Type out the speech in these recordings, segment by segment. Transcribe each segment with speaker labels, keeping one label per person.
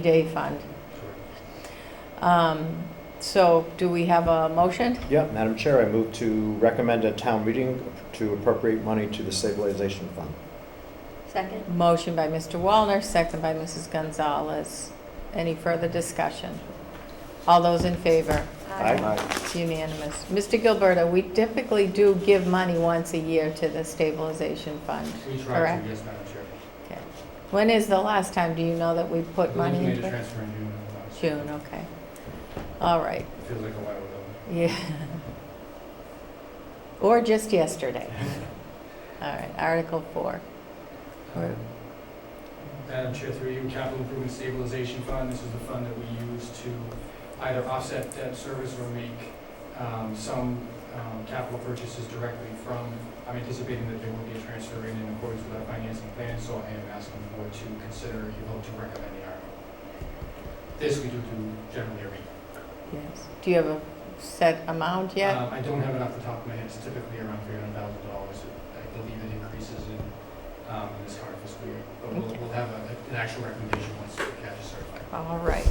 Speaker 1: Day Fund. Um, So do we have a motion?
Speaker 2: Yeah, Madam Chair, I move to recommend a town meeting to appropriate money to the stabilization fund.
Speaker 3: Second?
Speaker 1: Motion by Mr. Wallner, second by Mrs. Gonzalez. Any further discussion? All those in favor? It's unanimous. Mr. Gilberto, we typically do give money once a year to the stabilization fund.
Speaker 4: We tried
Speaker 1: Correct.
Speaker 4: to, yes, Madam Chair.
Speaker 1: When is the last time, do you know, that we
Speaker 4: I
Speaker 1: put
Speaker 4: believe
Speaker 1: money
Speaker 4: we made
Speaker 1: into
Speaker 4: a
Speaker 1: it?
Speaker 4: transfer in June. of last year.
Speaker 1: June, okay. All right,
Speaker 4: Feels like a while ago.
Speaker 1: yeah. Or just yesterday. All right, Article 4. Right.
Speaker 4: Madam Chair, through you, Capital Improvement Stabilization Fund, this is the fund that we use to either offset debt service or make um, some um, capital purchases directly from, I'm anticipating that there will be a transfer in in accordance with our financing plan, so I am asking the board to consider a vote to recommend the article. This we do do generally every year.
Speaker 1: Yes. Do you have a set amount yet?
Speaker 4: Um, I don't have it off the top of my head, it's typically around three hundred thousand dollars. I believe it increases in, um, in this current fiscal year, but we'll,
Speaker 1: Okay.
Speaker 4: we'll have a, an actual recommendation once the cash is certified.
Speaker 1: Uh-huh. All right.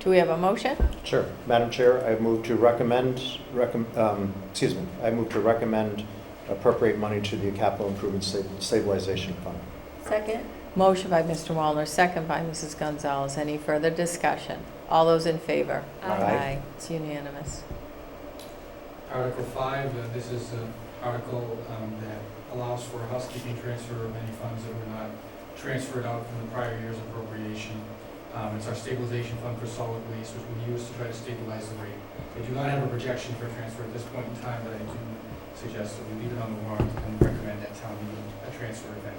Speaker 1: Do we have a motion?
Speaker 2: Sure. Madam Chair, I move to recommend, recom- um, excuse me, I move to recommend appropriate money to the capital improvement sta- stabilization fund.
Speaker 3: Second?
Speaker 1: Motion by Mr. Wallner, second by Mrs. Gonzalez. Any further discussion? All those in favor?
Speaker 2: Aye.
Speaker 1: It's unanimous.
Speaker 4: Article five, uh, this is an article, um, that allows for a housekeeping transfer of any funds that were not transferred out from the prior year's appropriation. Um, it's our stabilization fund for solid waste, which we use to try to stabilize the rate. I do not have a projection for transfer at this point in time, but I do suggest that we leave it on the warrant and recommend that town meeting a transfer event.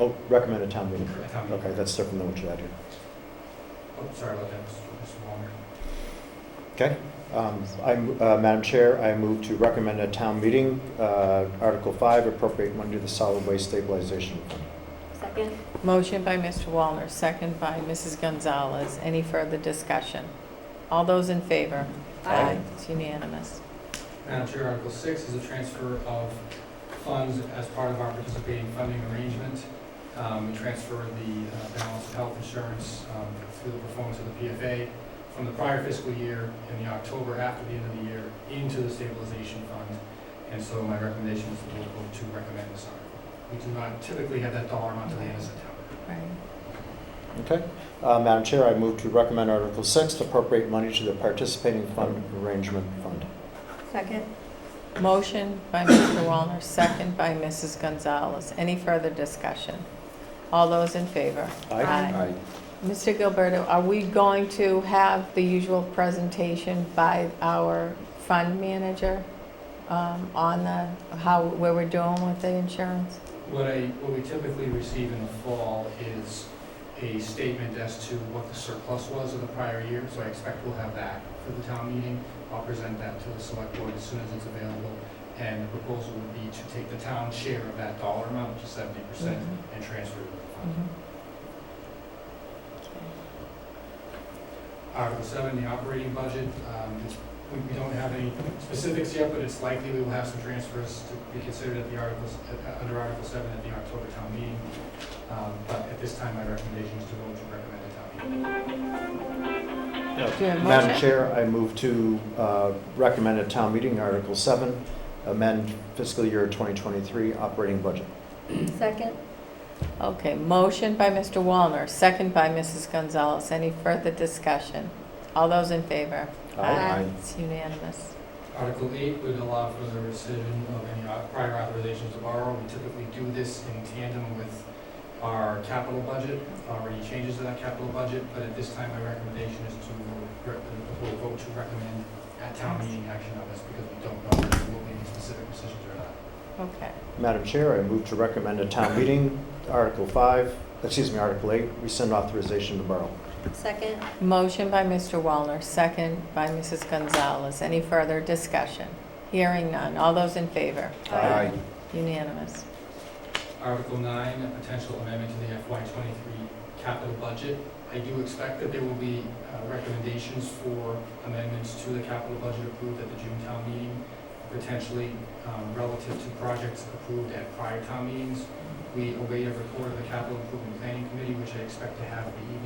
Speaker 2: Oh, recommend a town meeting.
Speaker 4: at town meeting.
Speaker 2: Okay, that's different than what you had here.
Speaker 4: Oh, sorry about that, Mr. Wallner.
Speaker 2: Um, I'm, uh, Madam Chair, I move to recommend a town meeting, uh, Article 5, appropriate money to the solid waste stabilization fund.
Speaker 3: Second?
Speaker 1: Motion by Mr. Wallner, second by Mrs. Gonzalez. Any further discussion? All those in favor?
Speaker 2: Aye.
Speaker 1: It's unanimous.
Speaker 4: Madam Chair, Article six is a transfer of funds as part of our participating funding arrangement. Um, we transfer the uh, balance of health insurance, um, through the performance of the PFA from the prior fiscal year in the October after the end of the year into the stabilization fund. And so my recommendation is to vote to recommend this article. We do not typically have that dollar amount to the end of September.
Speaker 1: Right.
Speaker 2: Okay. Uh, Madam Chair, I move to recommend Article 6, to appropriate money to the participating fund arrangement fund.
Speaker 3: Second?
Speaker 1: Motion by Mr. Wallner, second by Mrs. Gonzalez. Any further discussion? All those in favor? Aye.
Speaker 3: Aye.
Speaker 1: Mr. Gilberto, are we going to have the usual presentation by our fund manager um, on the, how, where we're doing with the insurance?
Speaker 4: What I, what we typically receive in the fall is a statement as to what the surplus was of the prior year, so I expect we'll have that for the town meeting. I'll present that to the select board as soon as it's available, and the proposal would be to take the town share of that dollar amount, which is seventy percent, and transfer it to the fund. Article seven, the operating budget, um, it's- we, we don't have any specifics yet, but it's likely we will have some transfers to be considered at the articles, uh, under article seven at the October town meeting. Um, but at this time, my recommendation is to vote to recommend a town meeting.
Speaker 1: Do you have a
Speaker 2: Madam
Speaker 1: motion?
Speaker 2: Chair, I move to uh, recommend at town meeting Article 7, amend fiscal year 2023 operating budget.
Speaker 3: Second?
Speaker 1: Okay, motion by Mr. Wallner, second by Mrs. Gonzalez. Any further discussion? All those in favor?
Speaker 3: Aye.
Speaker 1: It's unanimous.
Speaker 4: Article eight would allow for the rescission of any au- prior authorizations to borrow. We typically do this in tandem with our capital budget, or any changes to that capital budget, but at this time, my recommendation is to, rec- we'll vote to recommend at town meeting action on this, because we don't know if there will be any specific decisions or not.
Speaker 1: Okay.
Speaker 2: Madam Chair, I move to recommend at town meeting Article 5, excuse me, Article 8, rescind authorization to borrow.
Speaker 3: Second?
Speaker 1: Motion by Mr. Wallner, second by Mrs. Gonzalez. Any further discussion? Hearing none. All those in favor?
Speaker 3: Aye.
Speaker 1: Unanimous.
Speaker 4: Article nine, a potential amendment to the FY twenty-three capital budget. I do expect that there will be uh, recommendations for amendments to the capital budget approved at the June town meeting, potentially um, relative to projects approved at prior town meetings. We await a report of the capital improvement planning committee, which I expect to have the evening